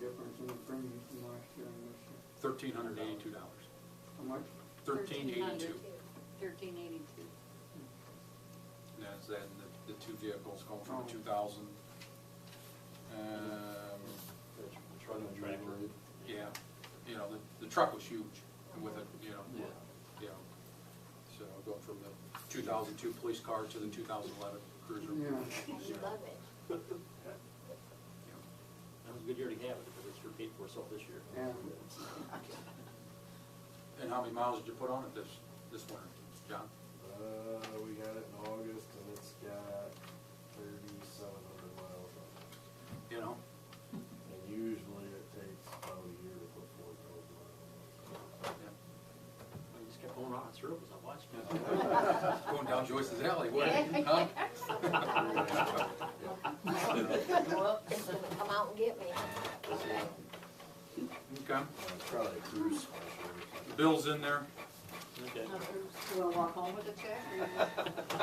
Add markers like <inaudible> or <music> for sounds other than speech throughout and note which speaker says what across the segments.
Speaker 1: difference in the premium from last year and this year?
Speaker 2: Thirteen hundred eighty-two dollars.
Speaker 1: How much?
Speaker 2: Thirteen eighty-two.
Speaker 3: Thirteen eighty-two.
Speaker 2: That's that, and the, the two vehicles going
Speaker 1: Oh.
Speaker 2: from two thousand. Um,
Speaker 4: Truck and tractor.
Speaker 2: yeah, you know, the, the truck was huge and with it, you know,
Speaker 4: Yeah.
Speaker 2: you know. So going from the two thousand two police car to the two thousand eleven cruiser.
Speaker 1: Yeah,
Speaker 5: I love it.
Speaker 4: That was a good year to have it, because it's repeated for itself this year.
Speaker 1: yeah.
Speaker 2: And how many miles did you put on it this, this winter, John?
Speaker 6: Uh, we got it in August and it's got thirty-seven hundred miles on it.
Speaker 2: You know,
Speaker 6: And usually it takes about a year to put four thousand miles on
Speaker 2: yeah.
Speaker 6: it.
Speaker 4: I just kept going on, sir, was I watching?
Speaker 2: going down Joyce's Alley, wasn't
Speaker 5: <laughs>
Speaker 2: it? Huh?
Speaker 7: <laughs>
Speaker 5: Well, it's gonna come out and get me.
Speaker 6: <laughs>
Speaker 2: Okay,
Speaker 6: Uh, Probably cruise special. or something.
Speaker 2: Bill's in there.
Speaker 4: Okay.
Speaker 3: You wanna walk home with
Speaker 7: <laughs>
Speaker 3: a check or? you-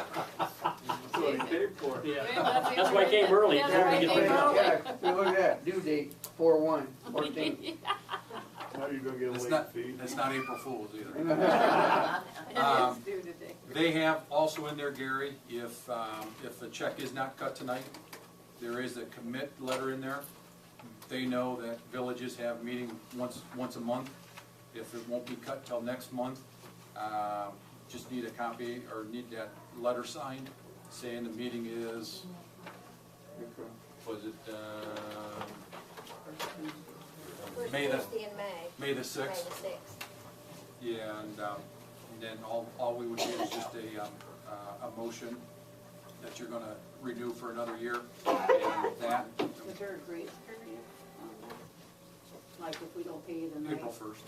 Speaker 8: That's what he paid for.
Speaker 3: <laughs>
Speaker 4: Yeah, that's why I came early.
Speaker 3: That's
Speaker 4: Trying to
Speaker 3: why I
Speaker 4: get
Speaker 3: came
Speaker 4: paid.
Speaker 3: early.
Speaker 1: Yeah, look at that, due date four one, <laughs> fourteen.
Speaker 6: How you gonna get
Speaker 2: It's
Speaker 6: late
Speaker 2: not,
Speaker 6: fee?
Speaker 2: it's not April Fool's either.
Speaker 3: It
Speaker 2: Um,
Speaker 3: is due today.
Speaker 2: They have also in there, Gary, if, um, if a check is not cut tonight, there is a commit letter in there. They know that villages have meeting once, once a month. If it won't be cut till next month, um, just need a copy or need that letter signed saying the meeting is,
Speaker 1: Okay.
Speaker 2: was it, uh,
Speaker 5: First
Speaker 2: May the-
Speaker 5: Tuesday in May.
Speaker 2: May the
Speaker 5: May the
Speaker 2: sixth?
Speaker 5: sixth.
Speaker 2: Yeah, and, um, and then all, all we would need is just a, um, uh, a motion that you're gonna renew for another year, and with that,
Speaker 3: Is there a grace period on that? Like if we don't pay you tonight?
Speaker 2: April first.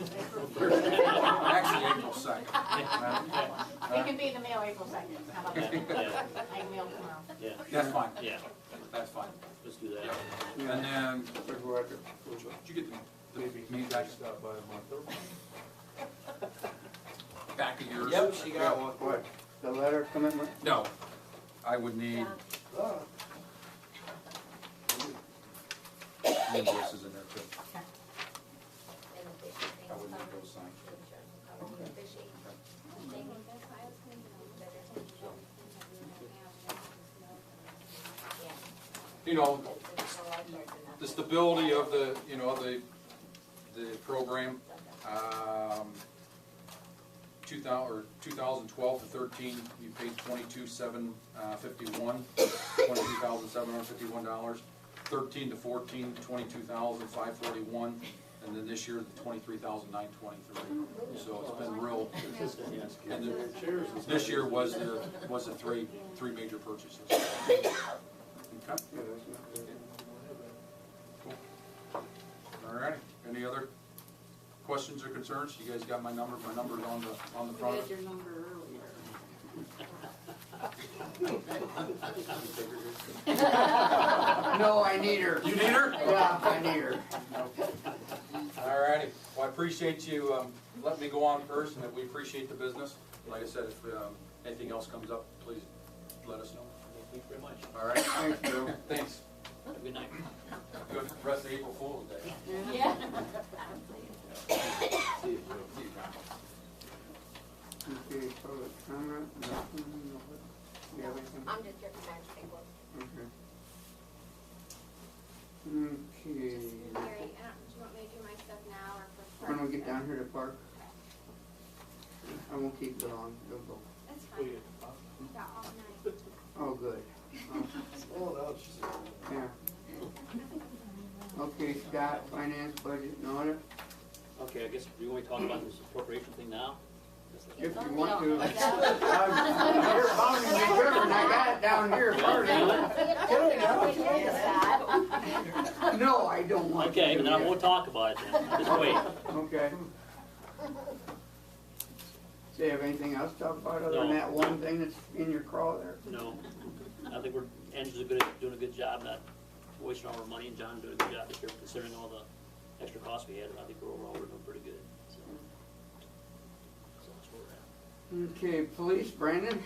Speaker 3: April
Speaker 2: Actually, April second.
Speaker 7: It can be in the mail April second, how about that?
Speaker 4: Yeah,
Speaker 7: I can mail tomorrow.
Speaker 4: yeah,
Speaker 2: That's fine,
Speaker 4: yeah,
Speaker 2: that's fine.
Speaker 4: let's do that.
Speaker 2: And then,
Speaker 1: Good work.
Speaker 2: did you get the,
Speaker 6: Maybe
Speaker 2: the me
Speaker 6: he can
Speaker 2: back,
Speaker 6: stop by a month early.
Speaker 2: back of yours?
Speaker 8: Yep, she got one.
Speaker 1: What, the letter of commitment?
Speaker 2: No, I would need
Speaker 5: John,
Speaker 6: Ah,
Speaker 2: invoices in there too.
Speaker 5: and the fishing
Speaker 2: I
Speaker 5: thing's
Speaker 2: would need
Speaker 5: coming.
Speaker 2: those signed.
Speaker 5: The insurance will cover the fishing thing. Yeah.
Speaker 2: You know,
Speaker 5: It's all like that, and
Speaker 2: the
Speaker 5: that's-
Speaker 2: stability of the, you know, the, the program, um, two thou, or two thousand twelve to thirteen, you paid twenty-two, seven, uh, fifty-one, twenty-two thousand, seven hundred fifty-one dollars. Thirteen to fourteen, twenty-two thousand, five forty-one, and then this year, the twenty-three thousand, nine twenty-three. So it's been real, and the-
Speaker 6: Cheers. is
Speaker 2: this year was the, was the three, three major purchases. Okay,
Speaker 1: Yeah, that's not good.
Speaker 2: all right, any other questions or concerns? You guys got my number, my number's on the, on the
Speaker 3: We
Speaker 2: front.
Speaker 3: had your number
Speaker 4: <laughs>
Speaker 3: earlier.
Speaker 1: <laughs> No, I need her.
Speaker 2: You need her?
Speaker 1: Yeah, I need her.
Speaker 2: All righty, well, I appreciate you, um, letting me go on first, and that we appreciate the business. Like I said, if, um, anything else comes up, please let us know.
Speaker 4: Thank you very much.
Speaker 2: All right?
Speaker 1: Thanks, Bill.
Speaker 2: <laughs> Thanks.
Speaker 4: Have a good night.
Speaker 2: Good rest of April Fool's Day.
Speaker 7: Yeah.
Speaker 2: See you, Bill. See you, John.
Speaker 1: Okay, public comment, nothing, nobody? You have anything?
Speaker 5: I'm just your magic one.
Speaker 1: Okay. Okay.
Speaker 9: Gary, I don't, do you want me to do my stuff now or for?
Speaker 1: When we get down here to park, I won't keep it on, it'll go.
Speaker 9: That's fine, got all night.
Speaker 1: Oh, good,
Speaker 6: Well, no, she <laughs> said.
Speaker 1: yeah. Okay, Scott, finance, budget, and audit,
Speaker 4: Okay, I guess, do you want to talk about this appropriation thing now?
Speaker 1: if
Speaker 3: <laughs>
Speaker 1: you want to.
Speaker 7: No,
Speaker 1: I'm-
Speaker 7: no.
Speaker 1: You're pounding me good, and I got it down here first. No, I don't want to.
Speaker 4: Okay,
Speaker 1: do
Speaker 4: then I
Speaker 1: that.
Speaker 4: won't talk about it then, just wait.
Speaker 1: Okay. Do you have anything else to talk about other than
Speaker 4: No.
Speaker 1: that one thing that's in your crawl there?
Speaker 4: No, I think we're, Andrew's good at- doing a good job not wasting all our money, and John doing a good job this year considering all the extra costs we had, and I think we're overall, we're doing pretty good, so. So that's where we're at.
Speaker 1: Okay, police, Brandon?